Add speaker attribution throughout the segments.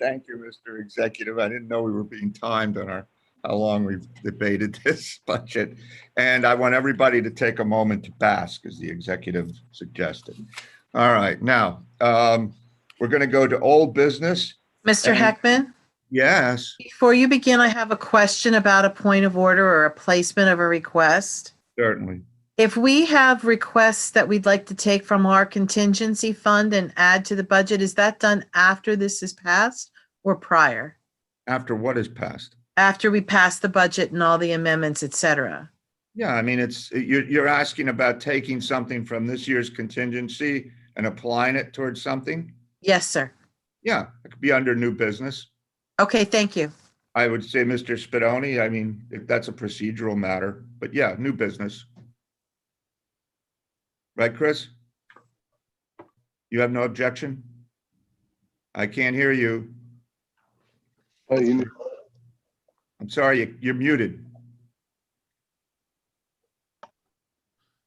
Speaker 1: Thank you, Mr. Executive. I didn't know we were being timed on our, how long we've debated this budget. And I want everybody to take a moment to bask, as the executive suggested. All right, now, um, we're going to go to old business.
Speaker 2: Mr.
Speaker 1: And-
Speaker 2: Heckman,
Speaker 1: Yes,
Speaker 2: before you begin, I have a question about a point of order or a placement of a request.
Speaker 1: certainly.
Speaker 2: If we have requests that we'd like to take from our contingency fund and add to the budget, is that done after this is passed or prior?
Speaker 1: After what is passed?
Speaker 2: After we pass the budget and all the amendments, et cetera?
Speaker 1: Yeah, I mean, it's, you're, you're asking about taking something from this year's contingency and applying it towards something?
Speaker 2: Yes, sir.
Speaker 1: Yeah, it could be under new business.
Speaker 2: Okay, thank you.
Speaker 1: I would say, Mr. Spadoni, I mean, if that's a procedural matter, but yeah, new business. Right, Chris? You have no objection? I can't hear you.
Speaker 3: Oh, you-
Speaker 1: I'm sorry, you- you're muted.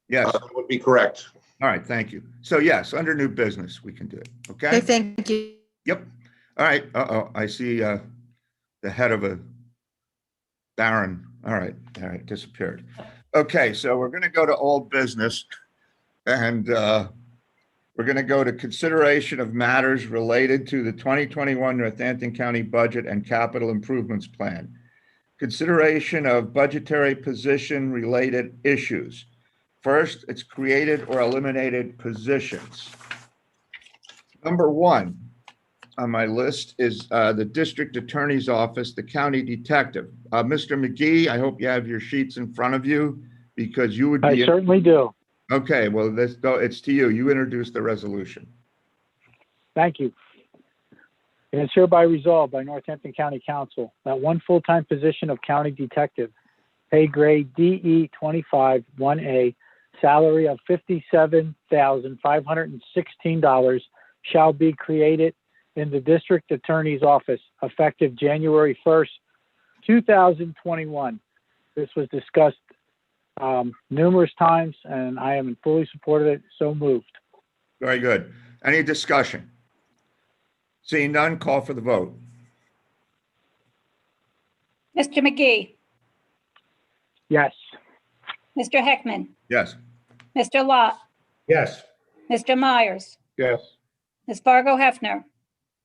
Speaker 1: Yes,
Speaker 3: uh, That would be correct.
Speaker 1: all right, thank you. So yes, under new business, we can do it,
Speaker 2: Okay,
Speaker 1: okay?
Speaker 2: thank you.
Speaker 1: Yep. All right. Uh-oh, I see uh, the head of a baron. All right, all right, disappeared. Okay, so we're going to go to old business. And uh, we're going to go to consideration of matters related to the 2021 Northampton County Budget and Capital Improvements Plan. Consideration of budgetary position-related issues. First, it's created or eliminated positions. Number one, on my list is uh, the District Attorney's Office, the County Detective. Uh, Mr. McGee, I hope you have your sheets in front of you because you would
Speaker 4: I
Speaker 1: be.
Speaker 4: certainly do.
Speaker 1: Okay, well, let's go, it's to you. You introduced the resolution.
Speaker 4: Thank you. And it's hereby resolved by Northampton County Council that one full-time position of county detective, pay grade DE twenty-five, one A, salary of fifty-seven thousand, five hundred and sixteen dollars shall be created in the district attorney's office effective January first, two thousand twenty-one. This was discussed, um, numerous times and I am in fully support of it, so moved.
Speaker 1: Very good. Any discussion? Seeing none, call for the vote.
Speaker 5: Mr. McGee,
Speaker 4: Yes.
Speaker 5: Mr. Heckman,
Speaker 1: Yes.
Speaker 5: Mr. Lot,
Speaker 1: Yes.
Speaker 5: Mr. Myers,
Speaker 3: Yes.
Speaker 5: Ms. Fargo Hefner,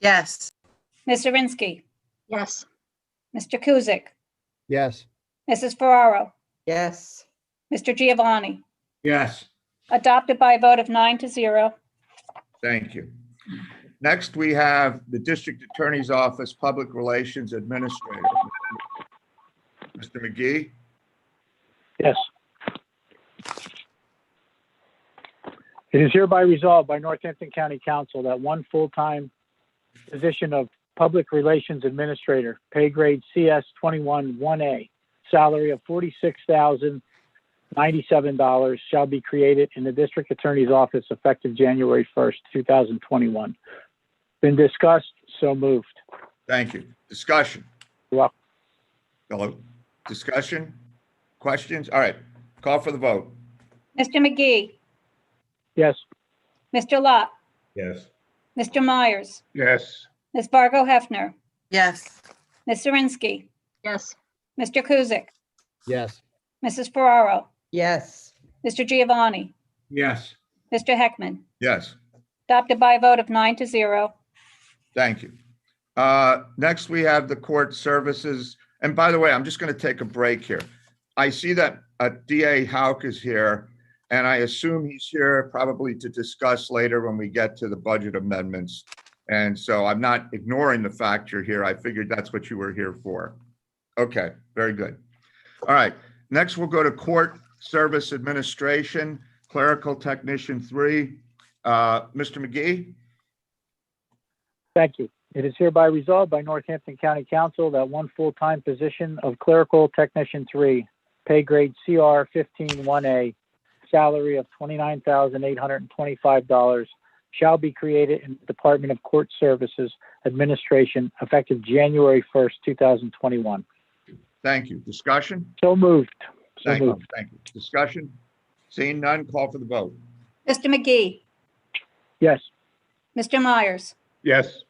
Speaker 2: Yes,
Speaker 5: Ms. Zirinsky,
Speaker 6: Yes,
Speaker 5: Mr. Kuzic,
Speaker 7: Yes,
Speaker 5: Mrs. Ferraro,
Speaker 8: Yes,
Speaker 5: Mr. Giovanni.
Speaker 1: Yes.
Speaker 5: Adopted by a vote of nine to zero.
Speaker 1: Thank you. Next, we have the District Attorney's Office Public Relations Administrator. Mr. McGee?
Speaker 4: Yes. It is hereby resolved by Northampton County Council that one full-time position of Public Relations Administrator, pay grade CS 21-1A, salary of $46,097 shall be created in the District Attorney's Office effective January 1st, 2021. Been discussed, so moved.
Speaker 1: Thank you. Discussion?
Speaker 4: You're welcome.
Speaker 1: Hello? Discussion? Questions? All right, call for the vote.
Speaker 5: Mr. McGee,
Speaker 4: Yes,
Speaker 5: Mr. Lot,
Speaker 3: Yes.
Speaker 5: Mr. Myers,
Speaker 3: Yes.
Speaker 5: Ms. Fargo Hefner,
Speaker 2: yes,
Speaker 5: Ms. Zirinsky,
Speaker 6: yes,
Speaker 5: Mr. Kuzic,
Speaker 7: yes,
Speaker 5: Mrs. Ferraro,
Speaker 8: yes,
Speaker 5: Mr. Giovanni,
Speaker 1: Yes.
Speaker 5: Mr. Heckman.
Speaker 1: Yes.
Speaker 5: Adopted by a vote of nine to zero.
Speaker 1: Thank you. Uh, Next, we have the court services. And by the way, I'm just going to take a break here. I see that uh, DA Hauk is here, and I assume he's here probably to discuss later when we get to the budget amendments. And so I'm not ignoring the fact you're here. I figured that's what you were here for. Okay, very good. All right, next we'll go to Court Service Administration, Clerical Technician 3. Uh, Mr. McGee?
Speaker 4: Thank you. It is hereby resolved by Northampton County Council that one full-time position of clerical technician three, pay grade CR fifteen one A, salary of twenty-nine thousand eight hundred and twenty-five dollars shall be created in the Department of Court Services Administration effective January first, two thousand twenty-one.
Speaker 1: Thank you. Discussion?
Speaker 4: So moved. So
Speaker 1: Thank you,
Speaker 4: moved.
Speaker 1: thank you. Discussion? Seeing none, call for the vote.
Speaker 5: Mr. McGee,
Speaker 4: Yes.
Speaker 5: Mr. Myers,
Speaker 3: Yes.